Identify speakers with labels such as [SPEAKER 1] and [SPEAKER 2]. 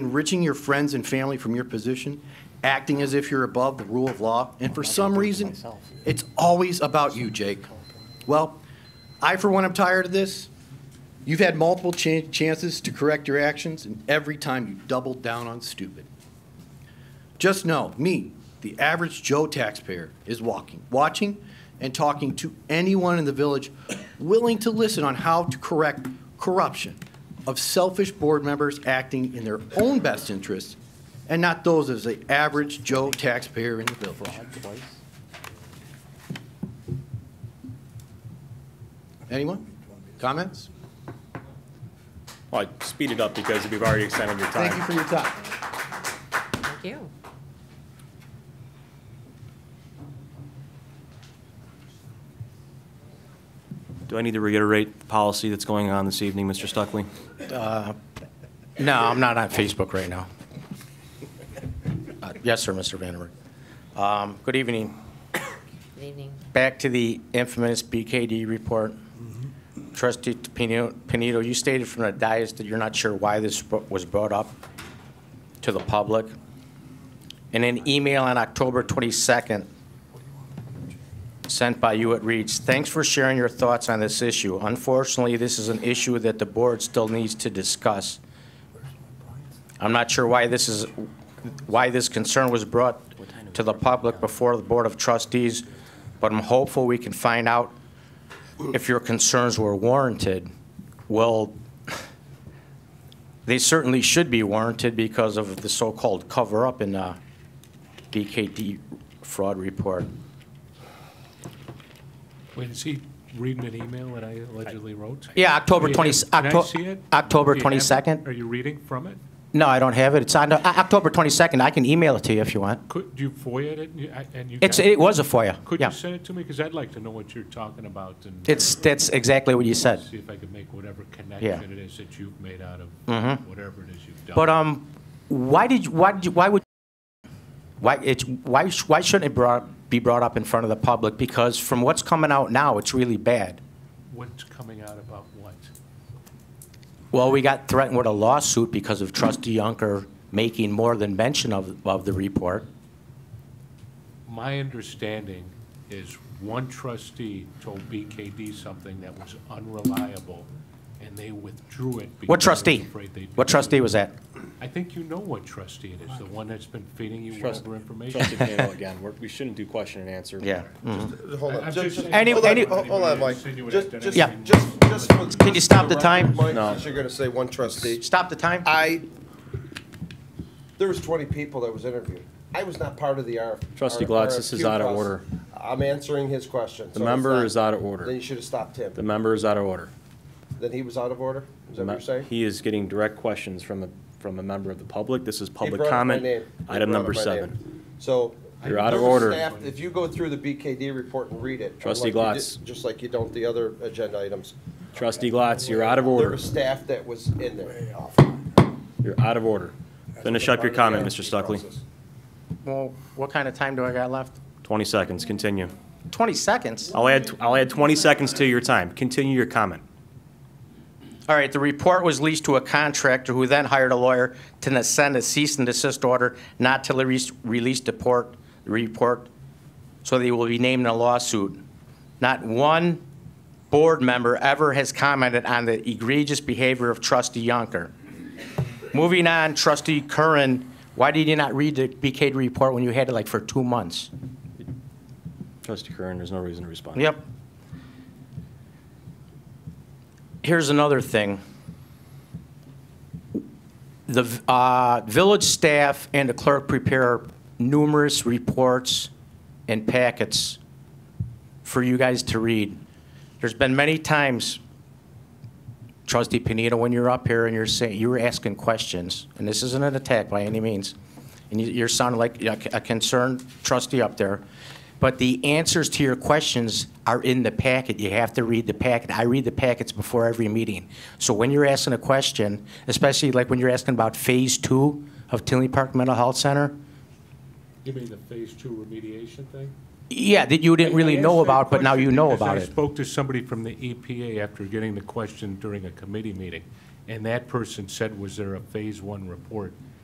[SPEAKER 1] enriching your friends and family from your position, acting as if you're above the rule of law, and for some reason, it's always about you, Jake. Well, I, for one, am tired of this. You've had multiple cha- chances to correct your actions, and every time you doubled down on stupid. Just know, me, the average Joe taxpayer, is walking, watching, and talking to anyone in the village willing to listen on how to correct corruption of selfish board members acting in their own best interests and not those of the average Joe taxpayer in the village. Anyone? Comments?
[SPEAKER 2] Well, I speed it up because we've already extended your
[SPEAKER 1] Thank you
[SPEAKER 2] time.
[SPEAKER 1] for your time.
[SPEAKER 3] Thank you.
[SPEAKER 4] Do I need to reiterate the policy that's going on this evening, Mr. Stuckley?
[SPEAKER 5] No, I'm not on Facebook right now. Uh, Yes, sir, Mr. Vandenberg. Um, Good evening.
[SPEAKER 3] Good evening.
[SPEAKER 5] Back to the infamous BKD report. Trustee Pino- Panito, you stated from the dais that you're not sure why this bro- was brought up to the public. In an email on October 22nd, sent by you, it reads, "Thanks for sharing your thoughts on this issue. Unfortunately, this is an issue that the board still needs to discuss. I'm not sure why this is, why this concern was brought to the public before the Board of Trustees, but I'm hopeful we can find out if your concerns were warranted. Well, they certainly should be warranted because of the so-called cover-up in the BKD fraud report.
[SPEAKER 6] Wait, is he reading an email that I allegedly wrote?
[SPEAKER 5] Yeah, October
[SPEAKER 6] Do you
[SPEAKER 5] 20
[SPEAKER 6] have- Can I
[SPEAKER 5] Octo-
[SPEAKER 6] see it?
[SPEAKER 5] October
[SPEAKER 6] Do you have it?
[SPEAKER 5] 22nd?
[SPEAKER 6] Are you reading from it?
[SPEAKER 5] No, I don't have it. It's on uh, October 22nd. I can email it to you if you want.
[SPEAKER 6] Could, do you FOIA it and you- I- and you?
[SPEAKER 5] It's,
[SPEAKER 6] got
[SPEAKER 5] it was a FOIA,
[SPEAKER 6] Could
[SPEAKER 5] yeah.
[SPEAKER 6] you send it to me? Because I'd like to know what you're talking about and.
[SPEAKER 5] It's, that's exactly what you said.
[SPEAKER 6] See if I could make whatever connection it is that you've made out of whatever it is you've
[SPEAKER 5] Mm-hmm.
[SPEAKER 6] done.
[SPEAKER 5] But um, why did you, why did you, why would why it's why sh- why shouldn't it brought, be brought up in front of the public? Because from what's coming out now, it's really bad.
[SPEAKER 6] What's coming out about what?
[SPEAKER 5] Well, we got threatened with a lawsuit because of Trustee Yunker making more than mention of of the report.
[SPEAKER 6] My understanding is one trustee told BKD something that was unreliable and they withdrew it.
[SPEAKER 5] What
[SPEAKER 6] because they were
[SPEAKER 5] trustee?
[SPEAKER 6] afraid they'd be
[SPEAKER 5] What trustee was that?
[SPEAKER 6] I think you know what trustee it is, the one that's been feeding you
[SPEAKER 2] Trust-
[SPEAKER 6] whatever
[SPEAKER 2] Trustee
[SPEAKER 6] information.
[SPEAKER 2] Panel, again, we're- we shouldn't do question and answer.
[SPEAKER 5] Yeah.
[SPEAKER 7] Hold
[SPEAKER 6] I'm
[SPEAKER 7] on. Just-
[SPEAKER 6] just
[SPEAKER 7] just-
[SPEAKER 6] saying-
[SPEAKER 5] Any-
[SPEAKER 7] hold on,
[SPEAKER 5] any-
[SPEAKER 7] ho- Hold on, Mike.
[SPEAKER 6] Insinuate
[SPEAKER 7] Just,
[SPEAKER 6] identity.
[SPEAKER 7] just,
[SPEAKER 5] Yeah.
[SPEAKER 7] just, just. for-
[SPEAKER 5] Can you stop the
[SPEAKER 7] for
[SPEAKER 5] time?
[SPEAKER 7] record,
[SPEAKER 2] No.
[SPEAKER 7] Mike, since you're gonna say one trustee.
[SPEAKER 5] Stop the time.
[SPEAKER 7] I, there was twenty people that was interviewed. I was not part of the RF.
[SPEAKER 2] Trustee
[SPEAKER 7] R-
[SPEAKER 2] Glatz, this is
[SPEAKER 7] RFQ
[SPEAKER 2] out of
[SPEAKER 7] process.
[SPEAKER 2] order.
[SPEAKER 7] I'm answering his question.
[SPEAKER 2] The
[SPEAKER 7] so it's
[SPEAKER 2] member
[SPEAKER 7] not-
[SPEAKER 2] is out of
[SPEAKER 7] Then
[SPEAKER 2] order.
[SPEAKER 7] you should have stopped him.
[SPEAKER 2] The member is out of order.
[SPEAKER 7] Then he was out of order? Is that what you're saying?
[SPEAKER 2] He is getting direct questions from a, from a member of the public. This is
[SPEAKER 7] He
[SPEAKER 2] public
[SPEAKER 7] brought up my
[SPEAKER 2] comment.
[SPEAKER 7] name. He
[SPEAKER 2] Item
[SPEAKER 7] brought
[SPEAKER 2] number
[SPEAKER 7] up my name.
[SPEAKER 2] seven.
[SPEAKER 7] So.
[SPEAKER 2] You're out of
[SPEAKER 7] members
[SPEAKER 2] order.
[SPEAKER 7] staff, If you go through the BKD report and read it.
[SPEAKER 2] Trustee
[SPEAKER 7] unlike you
[SPEAKER 2] Glatz.
[SPEAKER 7] did- Just like you don't the other agenda items.
[SPEAKER 2] Trustee Glatz, you're out of
[SPEAKER 7] There
[SPEAKER 2] order.
[SPEAKER 7] was staff that was in there.
[SPEAKER 2] You're out of order. Finish up your comment, Mr. Stuckley.
[SPEAKER 5] Well, what kind of time do I got left?
[SPEAKER 4] 20 seconds, continue.
[SPEAKER 5] Twenty seconds.
[SPEAKER 4] I'll add, I'll add 20 seconds to your time. Continue your comment.
[SPEAKER 5] All right, the report was leased to a contractor who then hired a lawyer to send a cease and desist order not to re- release the port, report, so they will be named in a lawsuit. Not one board member ever has commented on the egregious behavior of trustee Yonker. Moving on, trustee Curran, why did you not read the BKD report when you had it like for two months?
[SPEAKER 2] Trustee Curran, there's no reason to respond.
[SPEAKER 5] Yep. Here's another thing. The v- uh, village staff and the clerk prepare numerous reports and packets for you guys to read. There's been many times, trustee Panito, when you're up here and you're saying, you were asking questions, and this isn't an attack by any means, and you- you're sounding like a a concerned trustee up there, but the answers to your questions are in the packet. You have to read the packet. I read the packets before every meeting. So when you're asking a question, especially like when you're asking about Phase Two of Tinley Park Mental Health Center,
[SPEAKER 6] You mean the phase two remediation thing?
[SPEAKER 5] yeah, that you didn't really
[SPEAKER 6] I
[SPEAKER 5] know
[SPEAKER 6] asked that
[SPEAKER 5] about, but now
[SPEAKER 6] question
[SPEAKER 5] you know
[SPEAKER 6] because
[SPEAKER 5] about
[SPEAKER 6] I
[SPEAKER 5] it.
[SPEAKER 6] E spoke to somebody from the EPA after getting the question during a committee meeting, And that person said, was there a phase one report?